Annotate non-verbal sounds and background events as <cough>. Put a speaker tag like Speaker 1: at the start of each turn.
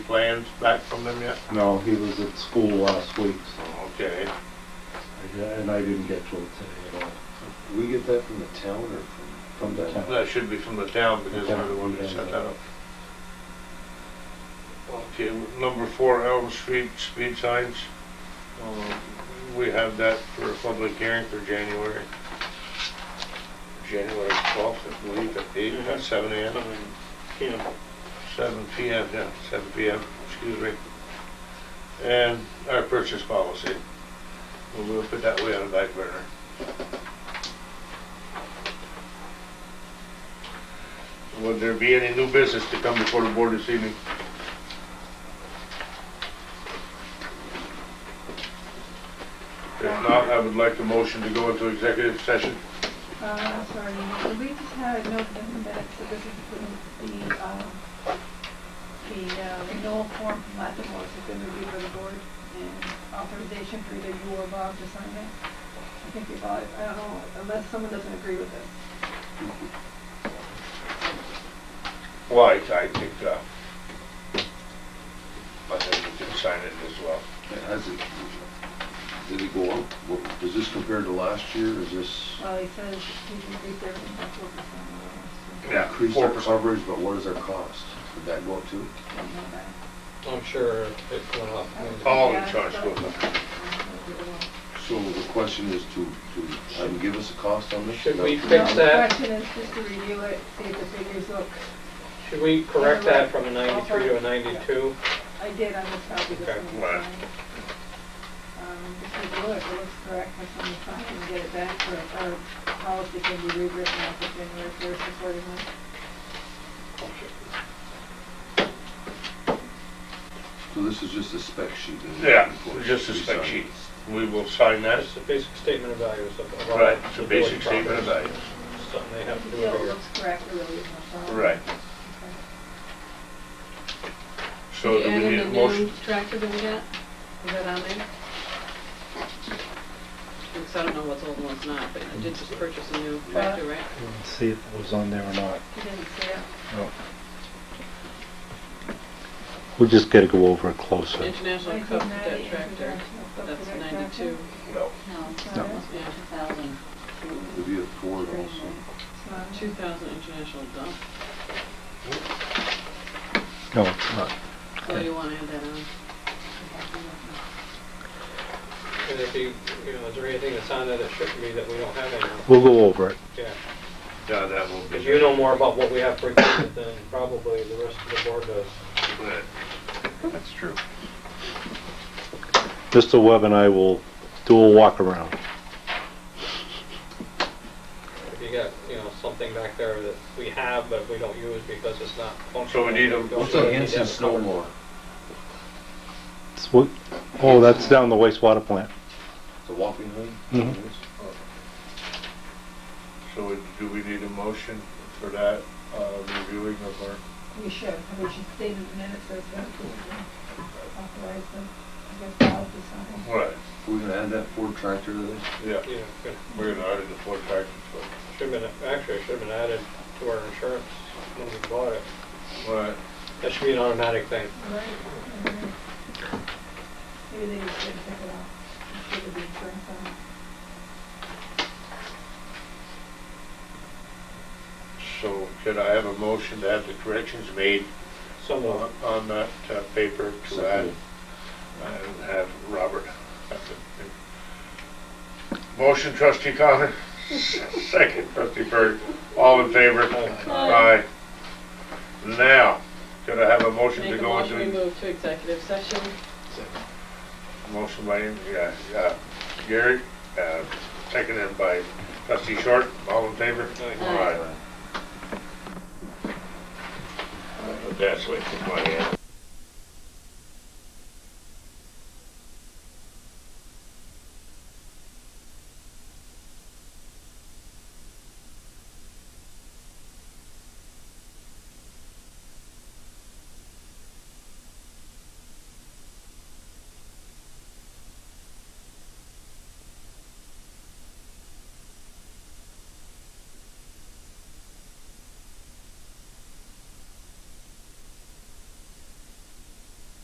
Speaker 1: plans back from them yet?
Speaker 2: No, he was at school last week, so
Speaker 1: Okay.
Speaker 2: I, di- and I didn't get to it today at all.
Speaker 3: We get that from the town or from, from
Speaker 2: The
Speaker 3: the,
Speaker 2: town.
Speaker 1: That should be from the town because they're the one that set that up. Okay, number four Elm Street speed signs. Um, We have that for a public hearing for January. January twelfth, I believe, at eight, at
Speaker 4: Mm-hmm.
Speaker 1: seven AM.
Speaker 4: Um, Yeah,
Speaker 1: Seven PM, yeah, seven PM, excuse me. And our purchase policy. And We'll put that way on the back burner. Would there be any new business to come before the board this evening? If not, I would like the motion to go into executive session.
Speaker 5: Uh, sorry, so we just had a note in the minutes that this is the, the, um, the uh, renewal form from Latimore has been reviewed by the board and authorization for either you or Bob to sign it. I think we've all, I don't know, unless someone doesn't agree with this.
Speaker 1: Well, I I think, uh, I think we can sign it as well.
Speaker 3: has it, did it go up? What- Does this compare to last year? Is this
Speaker 5: Well, he says he's increased everything by four percent. I
Speaker 1: Yeah,
Speaker 3: increased our
Speaker 1: 4%.
Speaker 3: coverage, but what is our cost? Did that go up too?
Speaker 5: don't know that.
Speaker 4: I'm sure it went up.
Speaker 1: All
Speaker 5: Yeah,
Speaker 1: insurance
Speaker 5: so-
Speaker 1: goes up.
Speaker 3: So the question is to, to, have them give us a cost on this?
Speaker 4: Should we
Speaker 3: No.
Speaker 4: fix
Speaker 5: The
Speaker 4: that?
Speaker 5: question is just to review it, see if the figures look,
Speaker 4: Should we correct that from a 93 to a 92?
Speaker 5: I did, I just copied this
Speaker 4: Okay,
Speaker 5: one.
Speaker 1: right.
Speaker 5: Um, just take a look, it looks correct, I can sign and get it back, or, or policy can be rewritten after January first accordingly.
Speaker 3: So this is just a spec sheet? isn't it?
Speaker 1: Yeah,
Speaker 3: Before
Speaker 1: just a
Speaker 3: we
Speaker 1: spec
Speaker 3: sign
Speaker 1: sheet. We will sign that.
Speaker 4: That's the basic statement of values of of all
Speaker 1: Right, it's
Speaker 4: the
Speaker 1: a basic
Speaker 4: building
Speaker 1: statement of
Speaker 4: properties.
Speaker 1: values.
Speaker 4: Something they have to
Speaker 5: The
Speaker 4: do
Speaker 5: deal
Speaker 4: every year.
Speaker 5: looks correct, there really isn't a problem.
Speaker 1: Right.
Speaker 5: Okay.
Speaker 1: So do we need a motion?
Speaker 6: Tractor that we got, is that on there? Because I don't know what's old and what's not, but I did just purchase a new tractor, right?
Speaker 2: Let's see if it was on there or not.
Speaker 5: You didn't see it?
Speaker 2: We just gotta go over it closer.
Speaker 6: International Cup debt tractor, that's ninety-two.
Speaker 1: No.
Speaker 7: No, it's
Speaker 5: No.
Speaker 6: Yeah,
Speaker 7: a thousand.
Speaker 3: It'd be a Ford also.
Speaker 6: two thousand international dump,
Speaker 2: No, it's not.
Speaker 6: so you wanna add that on?
Speaker 4: And if you, you know, is there anything that's on there that shouldn't be that we don't have anymore?
Speaker 2: We'll go over it.
Speaker 4: Yeah,
Speaker 1: Yeah, that will be.
Speaker 4: because you know more about what we have for equipment than probably the rest of the board does.
Speaker 1: Right.
Speaker 3: That's true.
Speaker 2: Mr. Webb and I will do a walk around.
Speaker 4: If you got, you know, something back there that we have but we don't use because it's not
Speaker 1: So
Speaker 4: functional.
Speaker 1: we need a-
Speaker 4: don't
Speaker 3: What's
Speaker 4: use it,
Speaker 3: that
Speaker 4: we need to have
Speaker 3: Hanson
Speaker 4: it covered.
Speaker 3: snowblower?
Speaker 2: It's what- Oh, that's down the wastewater plant.
Speaker 3: It's a walking hood?
Speaker 2: Mhm.
Speaker 3: Mm-hmm.
Speaker 1: So we- do we need a motion for that, uh, reviewing of our,
Speaker 5: We should, we should state in the minutes that it's been approved and authorize them, I guess, Bob to sign.
Speaker 1: right,
Speaker 3: We're gonna add that Ford tractor to this?
Speaker 1: yeah,
Speaker 4: Yeah, good.
Speaker 1: we're gonna audit the Ford tractor.
Speaker 4: Should have been, actually, it should have been added to our insurance when we bought it.
Speaker 1: so. Right.
Speaker 4: That should be an automatic thing.
Speaker 5: Right. mhm. Maybe they just didn't pick it up. Should have been insurance on it.
Speaker 1: So could I have a motion to have the corrections made
Speaker 4: Someone,
Speaker 1: on on that uh, paper to add uh,
Speaker 3: Second.
Speaker 1: and have Robert. Motion trustee Connor, <laughs> second trustee Berg, all in favor?
Speaker 4: uh,
Speaker 1: Aye.
Speaker 6: Aye.
Speaker 1: Now, could I have a motion to
Speaker 6: Make a
Speaker 1: go
Speaker 6: motion, we
Speaker 1: into,
Speaker 6: move to executive session,
Speaker 1: motion by, yeah, yeah, Gary, uh, seconded by trustee Short, all in favor?
Speaker 6: Aye.
Speaker 1: Aye. That's way to my hand.